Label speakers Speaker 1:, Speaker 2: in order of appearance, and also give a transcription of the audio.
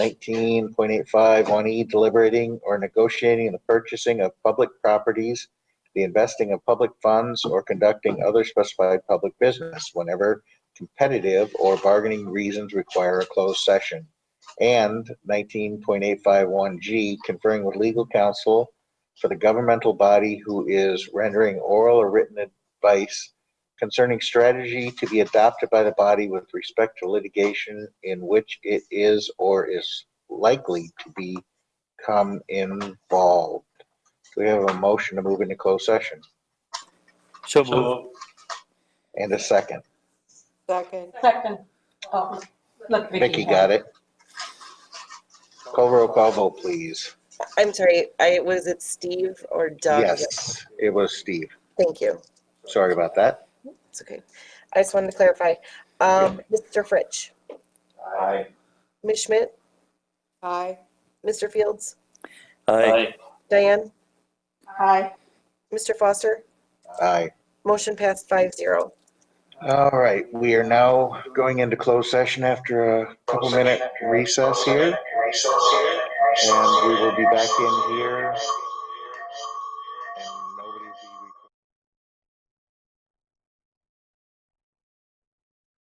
Speaker 1: nineteen point eight five, one E, deliberating or negotiating the purchasing of public properties, the investing of public funds, or conducting other specified public business whenever competitive or bargaining reasons require a closed session. And nineteen point eight five one G, conferring with legal counsel for the governmental body who is rendering oral or written advice concerning strategy to be adopted by the body with respect to litigation in which it is or is likely to become involved. Do we have a motion to move into closed session?
Speaker 2: So
Speaker 3: So moved.
Speaker 2: moved.
Speaker 1: And a second.
Speaker 4: Second,
Speaker 5: Second. Oh, Look,
Speaker 1: Vicky got it. Call roll call vote, please.
Speaker 6: I'm sorry, I, was it Steve or Doug?
Speaker 1: Yes, it was Steve.
Speaker 6: Thank you.
Speaker 1: Sorry about that.
Speaker 6: It's okay. I just wanted to clarify. Um, Mr. Fritsch,
Speaker 2: Aye.
Speaker 6: Ms. Schmidt,
Speaker 4: aye.
Speaker 6: Mr. Fields,
Speaker 3: Aye.
Speaker 6: Diane,
Speaker 5: Aye.
Speaker 6: Mr. Foster,
Speaker 1: Aye.
Speaker 6: motion passed five zero.
Speaker 1: All right, we are now going into closed session after a couple minute recess here. And we will be back in here